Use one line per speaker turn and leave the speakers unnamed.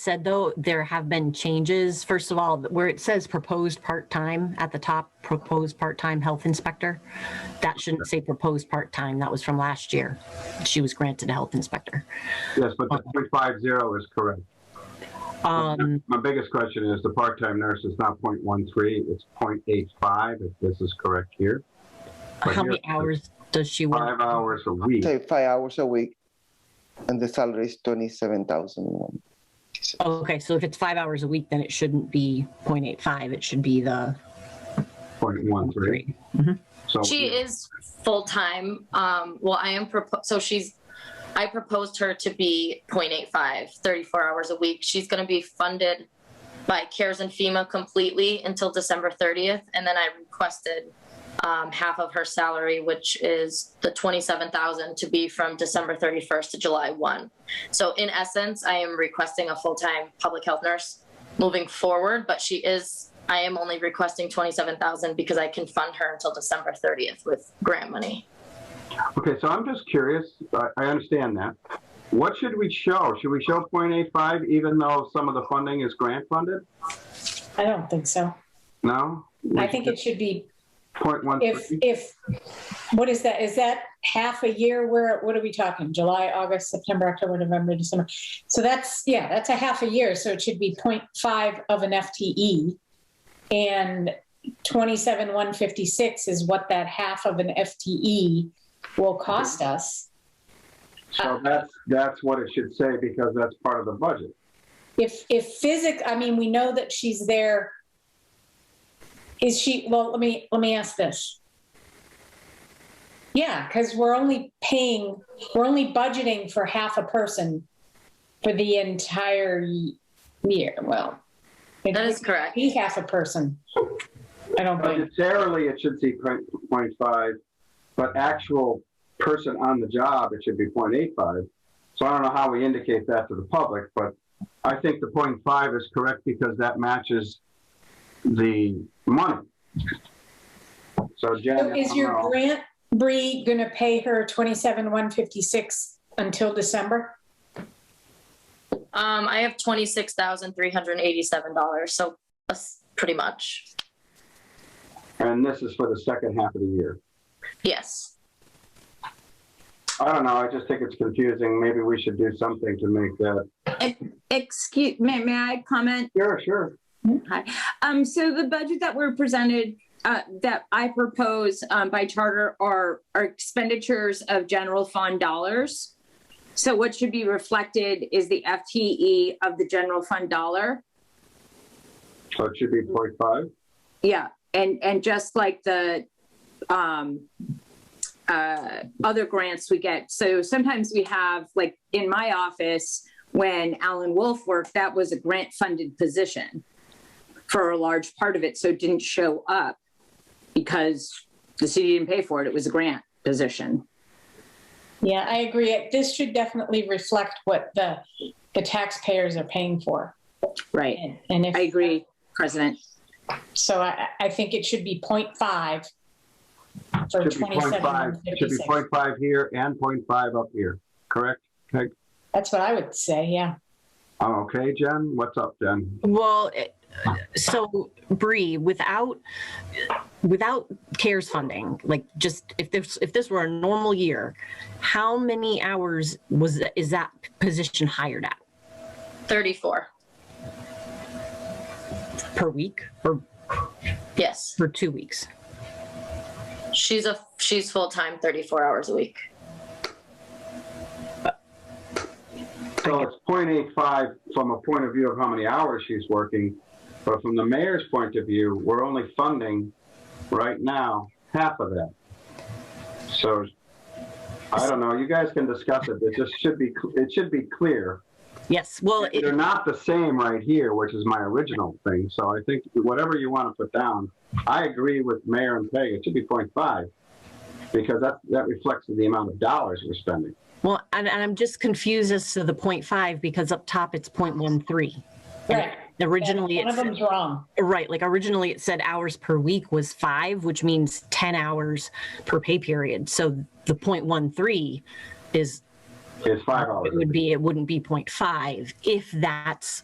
said, though, there have been changes. First of all, where it says proposed part-time at the top, proposed part-time health inspector, that shouldn't say proposed part-time. That was from last year. She was granted a health inspector.
Yes, but the point five zero is correct.
Um,
My biggest question is the part-time nurse is not point one three, it's point eight five, if this is correct here. But
how many
here-
hours does she work?
Five hours a week.
say five hours a week, and the salary is twenty-seven thousand one.
Okay, so if it's five hours a week, then it shouldn't be 0.85. It should be the
Point one three.
three.
So
She is full time. Um, well, I am propo- so she's. I proposed her to be 0.85, 34 hours a week. She's going to be funded by CARES and FEMA completely until December 30th, and then I requested um, half of her salary, which is the 27,000, to be from December 31st to July 1. So, in essence, I am requesting a full time public health nurse moving forward, but she is, I am only requesting 27,000 because I can fund her until December 30th with grant money.
Okay, so I'm just curious, I, I understand that. What should we show? Should we show point eight five even though some of the funding is grant funded?
I don't think so.
No?
I think it should be,
Point one
if,
three?
if, what is that? Is that half a year? Where, what are we talking? July, August, September, October, November, December? So that's, yeah, that's a half a year. So it should be 0.5 of an FTE. And twenty-seven, one fifty-six is what that half of an FTE will cost us. uh,
So that's, that's what it should say because that's part of the budget.
If, if physic, I mean, we know that she's there. Is she, well, let me, let me ask this. Yeah, because we're only paying, we're only budgeting for half a person for the entire y- year, well. it
That is
could
correct.
Be half a person. I don't think,
Budgetarily, it should see point point five, but actual person on the job, it should be point eight five. So I don't know how we indicate that to the public, but I think the point five is correct because that matches the money. So
So
Jen.
is
I'm
your
wrong.
grant, Bree, gonna pay her twenty-seven, one fifty-six until December?
Um, I have $26,387, so that's pretty much.
And this is for the second half of the year.
Yes.
I don't know, I just think it's confusing. Maybe we should do something to make that,
Excuse, may, may I comment?
sure, sure.
Um, so the budget that were presented, uh, that I propose, um, by charter are, are expenditures of general fund dollars. So what should be reflected is the FTE of the general fund dollar.
So it should be point five.
Yeah, and, and just like the, um, uh, other grants we get. So sometimes we have, like, in my office, when Alan Wolf worked, that was a grant-funded position for a large part of it, so it didn't show up because the city didn't pay for it. It was a grant position.
Yeah, I agree. This should definitely reflect what the, the taxpayers are paying for.
Right.
And and if.
I agree, President.
So I, I think it should be 0.5 for
Should be point five,
twenty-seven
should be
fifty-six.
point five here and point five up here, correct?
That's what I would say, yeah.
I'm okay, Jen. What's up, Jen?
Well, it- so Bree, without, without CARES funding, like just if this, if this were a normal year, how many hours was, is that position hired at
34.
per week or
Yes.
for two weeks?
She's a she's full time 34 hours a week.
So it's 0.85 from a point of view of how many hours she's working, but from the mayor's point of view, we're only funding right now half of that. So I don't know. You guys can discuss it. It just should be. It should be clear.
Yes, well, it-
They're not the same right here, which is my original thing. So I think whatever you want to put down, I agree with Mayor and Peg. It should be 0.5 because that that reflects the amount of dollars we're spending.
well, and, and I'm just confused as to the 0.5 because up top it's 0.13.
Right.
Originally,
One of
it's,
them's wrong.
right, like originally it said hours per week was five, which means ten hours per pay period. So the 0.13 is
It's five hours.
It would be, it wouldn't be 0.5 if that's